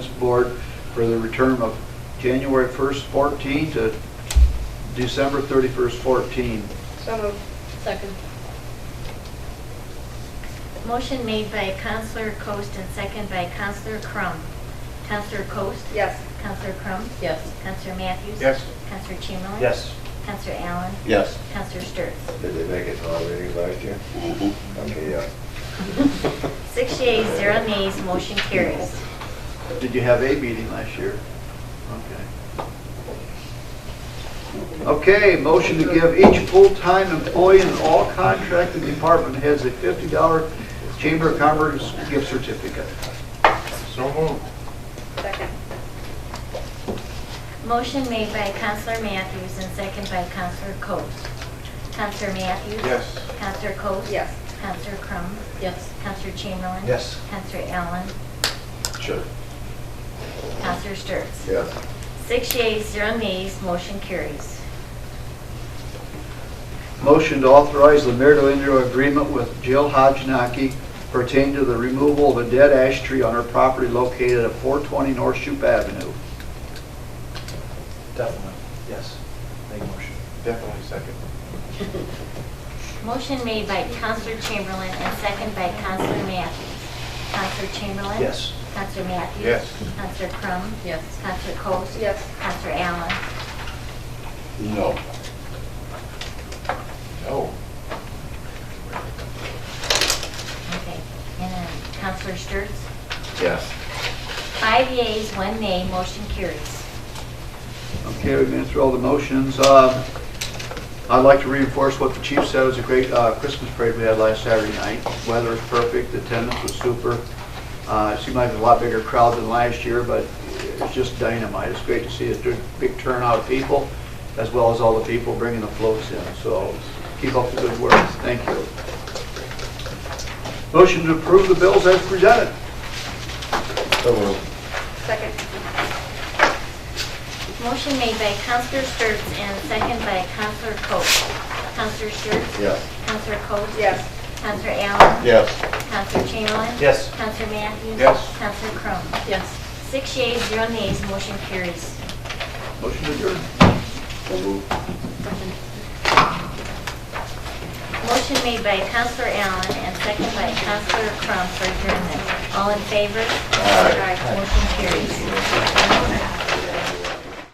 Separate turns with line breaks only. board for the return of January 1st, 14 to December 31st, 14.
So moved. Second.
Motion made by Counselor Coast and second by Counselor Crum. Counselor Coast?
Yes.
Counselor Crum?
Yes.
Counselor Matthews?
Yes.
Counselor Chamberlain?
Yes.
Counselor Allen?
Yes.
Counselor Sturts?
Did they make it to all readings last year? Okay, yeah.
Six yeas, zero nays, motion carries.
Did you have a meeting last year? Okay. Okay, motion to give each full-time employee and all contracted department heads a $50 Chamber of Commerce gift certificate.
So moved.
Second.
Motion made by Counselor Matthews and second by Counselor Coast. Counselor Matthews?
Yes.
Counselor Coast?
Yes.
Counselor Crum?
Yes.
Counselor Chamberlain?
Yes.
Counselor Allen?
Sure.
Counselor Sturts?
Yes.
Six yeas, zero nays, motion carries.
Motion to authorize the mayor to enter agreement with Jill Hodgenaki pertaining to the removal of a dead ash tree on her property located at 420 North Shoup Avenue.
Definitely, yes. Make motion. Definitely second.
Motion made by Counselor Chamberlain and second by Counselor Matthews. Counselor Chamberlain?
Yes.
Counselor Matthews?
Yes.
Counselor Crum?
Yes.
Counselor Coats?
Yes.
Counselor Allen?
No.
No.
Okay. And then Counselor Sturts?
Yes.
Five yeas, one nay, motion carries.
Okay, we've been through all the motions. Uh, I'd like to reinforce what the chief said, it was a great uh, Christmas parade we had last Saturday night. Weather was perfect, attendance was super. Uh, It seemed like a lot bigger crowd than last year, but it's just dynamite. It's great to see a d- big turnout of people, as well as all the people bringing the floats in, so keep up the good work. Thank you. Motion to approve the bills as presented.
So moved.
Second.
Motion made by Counselor Sturts and second by Counselor Coats. Counselor Sturts?
Yes.
Counselor Coats?
Yes.
Counselor Allen?
Yes.
Counselor Chamberlain?
Yes.
Counselor Matthews?
Yes.
Counselor Crum?
Yes.
Six yeas, zero nays, motion carries.
Motion to adjourn.
So moved.
Motion made by Counselor Allen and second by Counselor Crum for adjournment. All in favor?
Aye.
Motion carries.